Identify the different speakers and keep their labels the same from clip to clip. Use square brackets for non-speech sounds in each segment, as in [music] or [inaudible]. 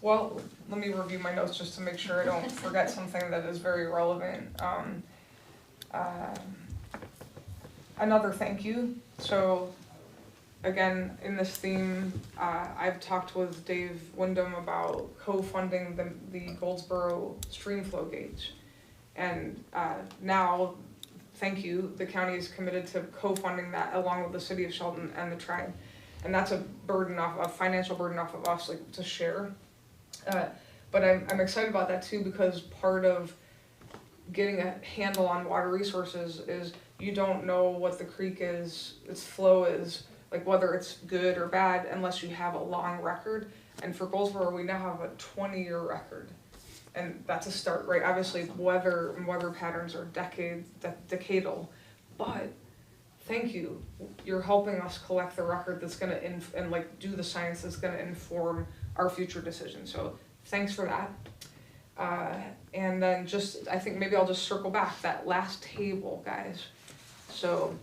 Speaker 1: Well, let me review my notes just to make sure I don't forget something that is very relevant. Um, um, another thank you. So, again, in this theme, uh, I've talked with Dave Wyndham about co-funding the, the Goldsboro stream flow gauge. And, uh, now, thank you, the county is committed to co-funding that along with the city of Sheldon and the tribe. And that's a burden off, a financial burden off of us, like, to share. Uh, but I'm, I'm excited about that too because part of getting a handle on water resources is you don't know what the creek is, its flow is, like whether it's good or bad unless you have a long record. And for Goldsboro, we now have a 20 year record. And that's a start, right? Obviously, weather and weather patterns are decade, de- decadal. But thank you. You're helping us collect the record that's going to, inf- and like do the science that's going to inform our future decisions. So thanks for that. Uh, and then just, I think maybe I'll just circle back that last table, guys. So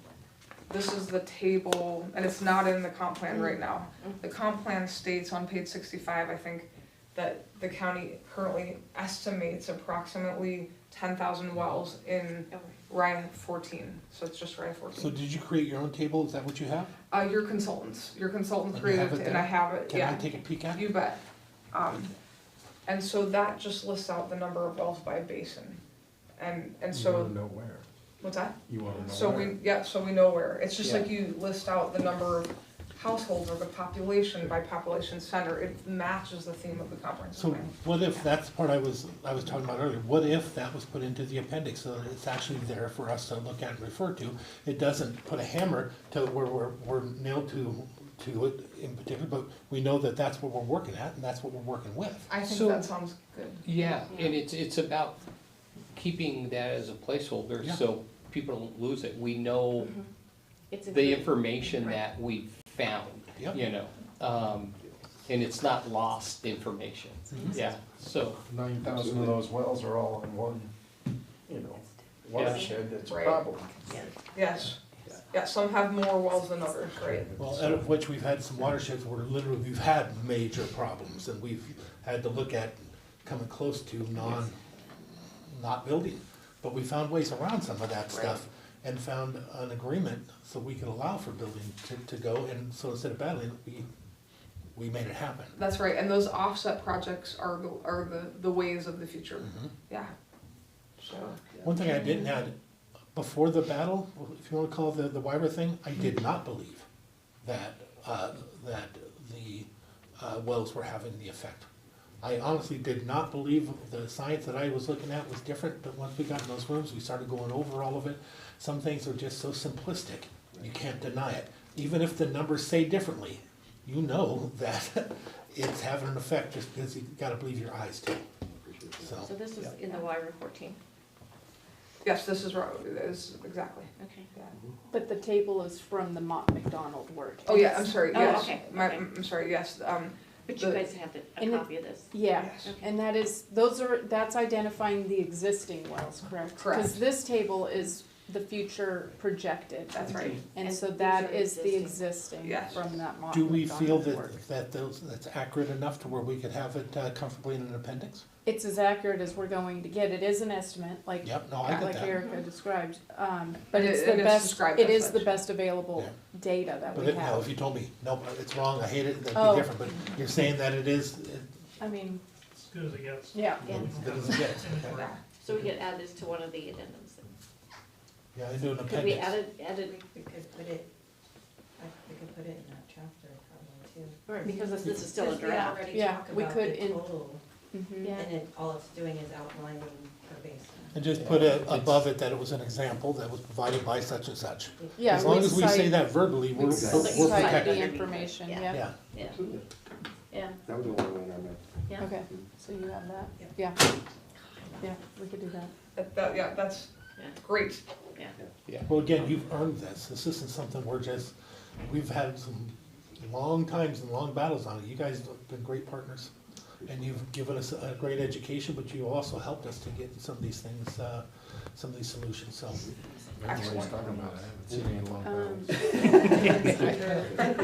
Speaker 1: this is the table, and it's not in the comp plan right now. The comp plan states on page sixty-five, I think, that the county currently estimates approximately ten thousand wells in Rye fourteen, so it's just Rye
Speaker 2: So
Speaker 1: fourteen.
Speaker 2: did you create your own table? Is that what you have?
Speaker 1: Uh, your consultants, your consultant
Speaker 2: And you have
Speaker 1: created,
Speaker 2: it
Speaker 1: and
Speaker 2: there?
Speaker 1: I have it,
Speaker 2: Can
Speaker 1: yeah.
Speaker 2: I take a peek at? it?
Speaker 1: You bet. Um, and so that just lists out the number of wells by basin. And, and
Speaker 3: You wanna
Speaker 1: so,
Speaker 3: know where,
Speaker 1: what's that?
Speaker 3: you wanna Mm-hmm. know
Speaker 1: So
Speaker 3: where.
Speaker 1: we, yeah, so we know where. It's just
Speaker 2: Yeah.
Speaker 1: like you list out the number of households or the population by population center. It matches the theme of the comprehensive
Speaker 2: So
Speaker 1: plan.
Speaker 2: what if, that's the part I was, I was talking about earlier, what if that was put into the appendix so that it's actually there for us to look at and refer to? It doesn't put a hammer to where we're, we're nailed to, to it in particular, but we know that that's what we're working at and that's what we're working with.
Speaker 1: I think
Speaker 4: So-
Speaker 1: that sounds good.
Speaker 4: Yeah, and it's, it's about keeping that as a placeholder,
Speaker 2: Yeah. Mm-hmm.
Speaker 4: so people don't lose it, we know
Speaker 5: It's a
Speaker 4: the
Speaker 5: good-
Speaker 4: information
Speaker 5: Right.
Speaker 4: that we found,
Speaker 2: Yep.
Speaker 4: you know? Um, and it's not lost information,
Speaker 2: Mhm.
Speaker 4: yeah, so,
Speaker 3: Nine thousand of those wells are all in one, you know, watershed, that's a
Speaker 1: Right.
Speaker 3: problem.
Speaker 1: Yes. Yeah, some have more wells than others, right?
Speaker 2: Well, out of which we've had some watersheds where literally we've had major problems and we've had to look at coming close to non, not building. But we found ways around some of that stuff and found an agreement so we could allow for building to, to go. And so instead of battling, we, we made it happen.
Speaker 1: That's right, and those offset projects are, the- are the, the ways of the future.
Speaker 2: Mm-hmm.
Speaker 1: Yeah. So.
Speaker 2: One thing I didn't add, before the battle, if you wanna call it the, the Wyra thing, I did not believe that, uh, that the, uh, wells were having the effect. I honestly did not believe the science that I was looking at was different, but once we got in those rooms, we started going over all of it. Some things are just so simplistic, you can't deny it, even if the numbers say differently, you know [laughs] that it's having an effect just because you gotta believe your eyes too,
Speaker 5: So this is in the Wyra fourteen,
Speaker 1: Yes, this is right, is, exactly,
Speaker 5: okay.
Speaker 1: yeah.
Speaker 6: But the table is from the Mott McDonald work.
Speaker 1: Oh, yeah, I'm sorry,
Speaker 5: Oh,
Speaker 1: yes,
Speaker 5: okay,
Speaker 1: my,
Speaker 5: okay.
Speaker 1: I'm sorry, yes, um,
Speaker 5: But you
Speaker 1: The-
Speaker 5: guys have the- a
Speaker 6: And it-
Speaker 5: copy of this?
Speaker 6: Yeah,
Speaker 1: Yes.
Speaker 5: Okay.
Speaker 6: and that is, those are, that's identifying the existing wells, correct? Because
Speaker 1: Correct.
Speaker 6: this table is the future projected.
Speaker 1: that's right.
Speaker 6: And
Speaker 5: And
Speaker 6: so
Speaker 5: these are
Speaker 6: that is the
Speaker 5: existing.
Speaker 6: existing
Speaker 1: Yes.
Speaker 6: from that Mott
Speaker 2: Do we feel
Speaker 6: McDonald work.
Speaker 2: that, that those, that's accurate enough to where we could have it uh, comfortably in an appendix?
Speaker 6: It's as accurate as we're going to get. It is an estimate, like,
Speaker 2: Yep, no, I get
Speaker 6: like
Speaker 2: that.
Speaker 6: Erica described, um, but
Speaker 1: And
Speaker 6: it's
Speaker 1: Mm-hmm. it-
Speaker 6: the
Speaker 1: and it's
Speaker 6: best,
Speaker 1: described
Speaker 6: it
Speaker 1: as
Speaker 6: is the
Speaker 1: such.
Speaker 6: best available
Speaker 2: Yeah.
Speaker 6: data that
Speaker 2: But
Speaker 6: we
Speaker 2: it- no,
Speaker 6: have.
Speaker 2: if you told me, nope, it's wrong, I hate it, that'd
Speaker 6: Oh.
Speaker 2: be different, but you're saying that it is, it-
Speaker 6: I mean,
Speaker 7: As good as it gets.
Speaker 6: yeah.
Speaker 5: Yeah.
Speaker 2: that is it. Okay.
Speaker 1: Yeah.
Speaker 5: So we could add this to one of the addendums. then.
Speaker 2: Yeah, I do an
Speaker 5: Could we
Speaker 2: appendix.
Speaker 5: add it, add
Speaker 8: We
Speaker 5: it,
Speaker 8: we could put it, I- we could put it in that chapter probably too.
Speaker 5: or because this is still a
Speaker 8: Because we
Speaker 5: draft.
Speaker 8: already
Speaker 6: Yeah,
Speaker 8: talk
Speaker 6: we
Speaker 8: about
Speaker 6: could
Speaker 8: the
Speaker 6: in-
Speaker 8: total,
Speaker 6: mhm.
Speaker 5: Yeah.
Speaker 8: And it, all it's doing is outlining per basin.
Speaker 2: And just put it above it that it was an example that was provided by such and such.
Speaker 6: Yeah,
Speaker 2: As long
Speaker 6: we
Speaker 2: as we say
Speaker 6: cite-
Speaker 2: that verbally, we're,
Speaker 6: we
Speaker 2: we're
Speaker 6: cite
Speaker 2: we're
Speaker 6: the
Speaker 2: protected.
Speaker 5: it.
Speaker 6: information,
Speaker 5: Yeah.
Speaker 6: yeah,
Speaker 2: Yeah,
Speaker 5: Yeah,
Speaker 9: Absolutely.
Speaker 5: yeah,
Speaker 9: That was the only one I meant.
Speaker 5: yeah.
Speaker 6: okay, so you have that,
Speaker 8: Yep.
Speaker 6: yeah, yeah, we could do that.
Speaker 1: That, that, yeah, that's
Speaker 5: Yeah.
Speaker 1: great,
Speaker 2: well, again, you've earned this, this isn't something we're just, we've had some long times and long battles on it, you guys have been great partners. And you've given us a great education, but you also helped us to get some of these things, uh, some of these solutions, so.
Speaker 1: excellent.
Speaker 6: Um,
Speaker 5: Or is it the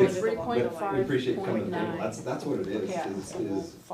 Speaker 6: Three
Speaker 5: one-
Speaker 8: [laughs]
Speaker 6: point
Speaker 9: But we
Speaker 6: five
Speaker 5: oh
Speaker 9: appreciate coming to
Speaker 6: point
Speaker 9: the table,
Speaker 6: nine.
Speaker 9: that's, that's what it is,
Speaker 6: Yeah,
Speaker 9: is,
Speaker 6: so we'll
Speaker 9: is